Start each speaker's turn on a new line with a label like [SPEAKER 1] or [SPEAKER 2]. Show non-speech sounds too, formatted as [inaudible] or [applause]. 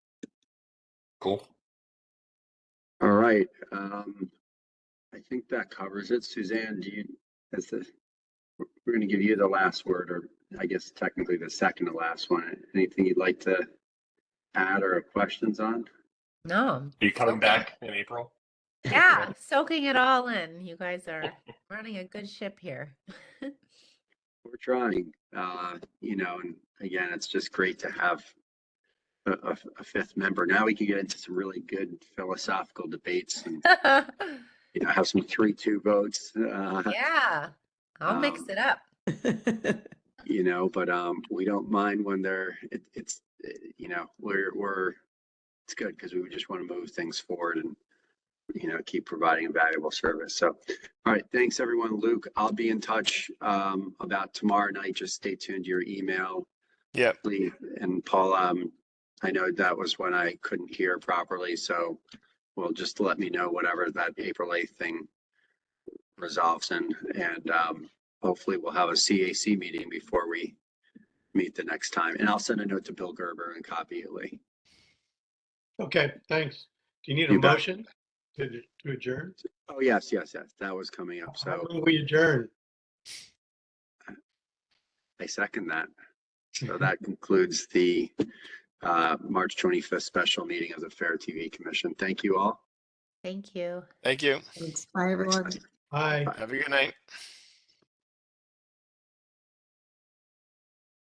[SPEAKER 1] Cool.
[SPEAKER 2] All right, um, I think that covers it. Suzanne, do you, that's the, we're- we're gonna give you the last word, or I guess technically the second to last one. Anything you'd like to add or questions on?
[SPEAKER 3] No.
[SPEAKER 1] Are you coming
[SPEAKER 3] Okay.
[SPEAKER 1] back in April?
[SPEAKER 3] Yeah, soaking it all in. You guys are running a good ship here. [laughs]
[SPEAKER 2] We're trying, uh, you know, and again, it's just great to have a, a, a fifth member. Now we can get into some really good philosophical debates and, you know, have some three-two votes. Uh,
[SPEAKER 3] yeah. I'll mix
[SPEAKER 2] Um,
[SPEAKER 3] it up.
[SPEAKER 2] you know but um we don't mind when they're it, it's eh, you know we're we're it's good because we just want to move things forward and you know keep providing a valuable service so all right thanks everyone luke i'll be in touch um about tomorrow night just stay tuned to your email
[SPEAKER 1] Yep.
[SPEAKER 2] Lee and paul um i know that was when i couldn't hear properly so well just let me know whatever that april 8th thing resolves in and um hopefully we'll have a CAC meeting before we meet the next time. And I'll send a note to Bill Gerber and copy it, Lee.
[SPEAKER 4] Okay, thanks. Do you need a
[SPEAKER 2] You bet.
[SPEAKER 4] motion to to adjourn?
[SPEAKER 2] Oh, yes, yes, yes. That was coming up. So
[SPEAKER 4] I move We adjourn.
[SPEAKER 2] I second that. So that concludes the uh, March 25th special meeting of the Fair TV Commission. Thank you all.
[SPEAKER 3] Thank you.
[SPEAKER 1] Thank you.
[SPEAKER 5] Thanks. Bye, everyone.
[SPEAKER 4] Aye.
[SPEAKER 1] Have a good night.